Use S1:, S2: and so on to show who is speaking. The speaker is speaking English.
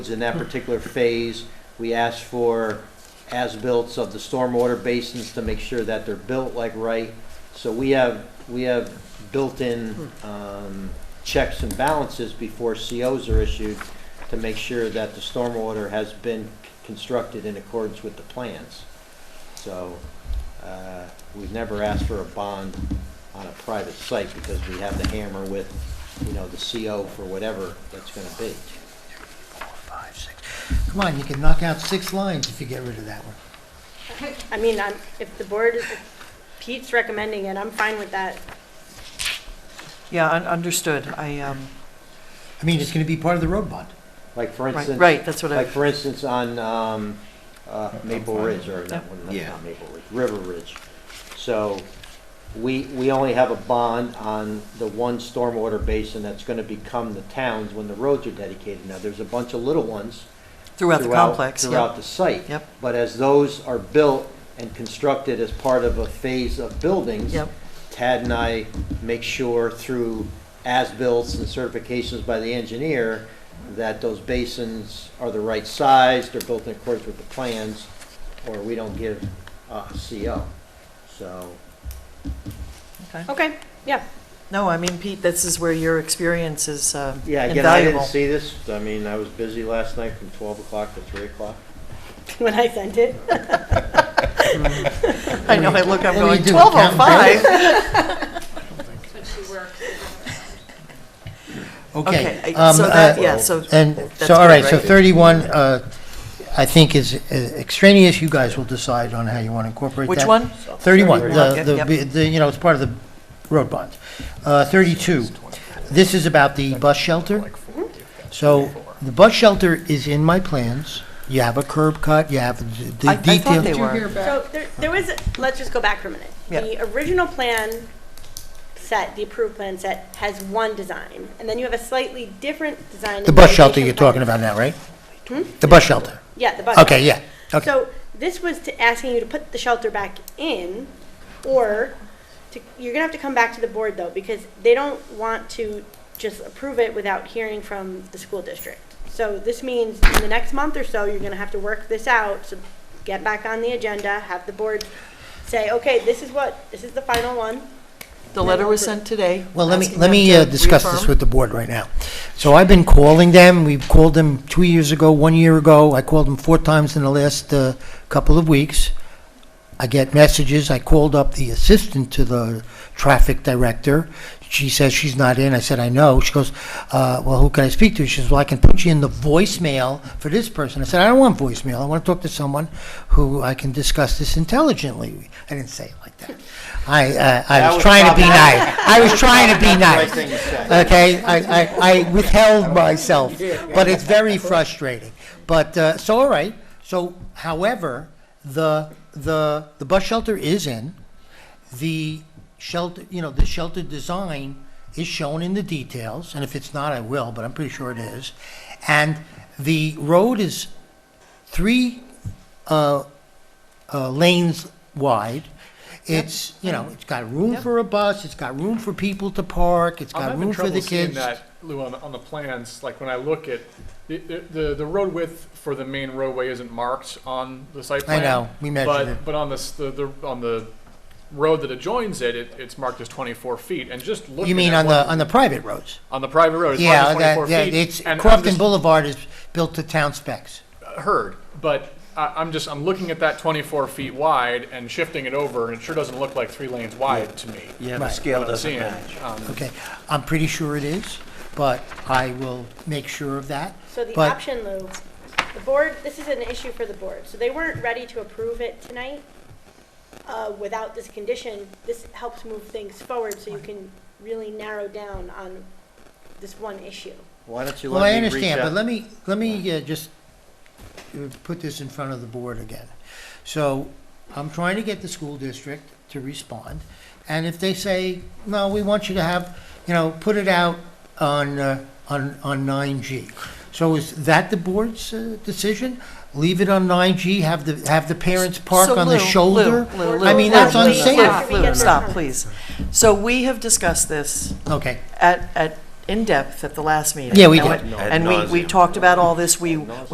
S1: in that particular phase. We asked for as-built of the stormwater basins to make sure that they're built like right. So we have, we have built-in um, checks and balances before COs are issued to make sure that the stormwater has been constructed in accordance with the plans. So uh, we've never asked for a bond on a private site because we have the hammer with, you know, the CO for whatever that's going to be.
S2: Five, six. Come on, you can knock out six lines if you get rid of that one.
S3: I mean, I'm, if the board, if Pete's recommending it, I'm fine with that.
S4: Yeah, un- understood. I, um,
S2: I mean, it's gonna be part of the road bond.
S1: Like for
S4: right,
S1: instance.
S4: right, that's what I,
S1: Like, for instance, on um, uh, Maple Ridge, or not, that's
S2: Yeah.
S1: not Maple Ridge, River Ridge. So we, we only have a bond on the one stormwater basin that's going to become the town's when the roads are dedicated. Now, there's a bunch of little ones
S4: throughout the complex,
S1: Throughout
S4: yep,
S1: the site.
S4: Yep.
S1: But as those are built and constructed as part of a phase of buildings.
S4: yep,
S1: Tad and I make sure through as-builts and certifications by the engineer that those basins are the right size, they're built in accordance with the plans, or we don't give uh, a CO. So,
S4: okay.
S3: Okay, yeah.
S4: No, I mean, Pete, this is where your experience is um,
S1: yeah, again, I didn't
S4: invaluable.
S1: see this. I mean, I was busy last night from 12 o'clock to 3 o'clock.
S3: When I sent it,
S4: I know, I look,
S2: What
S4: I'm
S2: do
S4: going,
S2: you do,
S4: twelve oh five.
S2: Okay.
S4: Okay, I-
S2: um,
S4: so that,
S2: uh,
S4: yeah, so,
S2: And,
S4: That's
S2: so, all
S4: good,
S2: right, so
S4: right?
S2: 31, uh, I think is uh, extraneous, you guys will decide on how you want to incorporate that.
S4: which one?
S2: 31,
S4: 31,
S2: the-
S4: yep,
S2: the,
S4: yep.
S2: the- the, you know, it's part of the road bond. Uh, 32, this is about the bus shelter. So the bus shelter is in my plans. You have a curb cut, you have the
S4: I- I
S2: the
S4: thought
S2: detail.
S4: they were.
S3: so there, there was, let's just go back for a minute.
S4: Yeah.
S3: The original plan set, the approved plan set, has one design, and then you have a slightly different design.
S2: The
S3: in
S2: bus shelter
S3: addition
S2: you're
S3: by-
S2: talking about now, right?
S3: Hmm?
S2: The bus shelter.
S3: Yeah, the bus.
S2: Okay, yeah. Okay.
S3: So this was to asking you to put the shelter back in, or to, you're gonna have to come back to the board though, because they don't want to just approve it without hearing from the school district. So this means in the next month or so, you're gonna have to work this out, so get back on the agenda, have the board say, okay, this is what, this is the final one.
S4: The letter was sent today.
S2: Well, let me,
S4: asking
S2: let
S4: them
S2: me
S4: to
S2: uh, discuss this
S4: reaffirm.
S2: with the board right now. So I've been calling them, we've called them two years ago, one year ago, I called them four times in the last uh, couple of weeks. I get messages, I called up the assistant to the traffic director, she says she's not in, I said, I know, she goes, uh, well, who can I speak to? She says, well, I can put you in the voicemail for this person. I said, I don't want voicemail, I want to talk to someone who I can discuss this intelligently. I didn't say it like that. I, uh, I
S1: That
S2: was
S1: was
S2: trying to be
S1: probably-
S2: nice, I was trying to be
S1: That's the right
S2: nice.
S1: thing to say.
S2: Okay, I, I, I withheld myself, but it's very frustrating. But, uh, so, all right, so however, the, the, the bus shelter is in. The shelter, you know, the shelter design is shown in the details, and if it's not, I will, but I'm pretty sure it is. And the road is three, uh, uh, lanes wide. It's, you know, it's got room
S4: Yep.
S2: for a bus, it's got room for people to park, it's
S5: I'm
S2: got
S5: having
S2: room for
S5: trouble
S2: the
S5: seeing
S2: kids.
S5: that, Lou, on, on the plans, like when I look at, the, the, the road width for the main roadway isn't marked on the site
S2: I
S5: plan.
S2: know, we measured it.
S5: But, but on this, the, the, on the road that adjoins it, it, it's marked as twenty-four feet, and just looking at.
S2: You mean on the,
S5: what-
S2: on the private roads?
S5: On the private road, it's marked
S2: Yeah,
S5: as
S2: that,
S5: twenty-four feet.
S2: yeah, it's,
S5: and I'm
S2: Crofton
S5: just-
S2: Boulevard is built to town specs.
S5: Heard, but I, I'm just, I'm looking at that twenty-four feet wide and shifting it over, and it sure doesn't look like three lanes wide to me.
S1: Yeah,
S2: the Right.
S1: scale
S5: what I'm seeing. Um,
S2: Okay, I'm pretty sure it is, but I will make sure of that.
S3: So the
S2: But-
S3: option, Lou, the board, this is an issue for the board, so they weren't ready to approve it tonight. Uh, without this condition, this helps move things forward, so you can really narrow down on this one issue.
S1: Why don't you
S2: Well,
S1: let
S2: I
S1: me reach
S2: understand, but
S1: out-
S2: let me, let me uh, just uh, put this in front of the board again. So I'm trying to get the school district to respond, and if they say, no, we want you to have, you know, put it out on, uh, on, on 9G. So is that the board's uh, decision? Leave it on 9G, have the, have the parents park
S4: So
S2: on the
S4: Lou, Lou,
S2: shoulder?
S4: Lou, Lou,
S2: I mean,
S4: Lou,
S2: that's
S4: Lou,
S2: unsafe.
S4: Lou, Lou, stop, please. So we have discussed this
S2: Okay,
S4: at, at in depth at the last meeting.
S2: Yeah, we
S4: And
S2: did.
S4: And we, we talked about all this, we,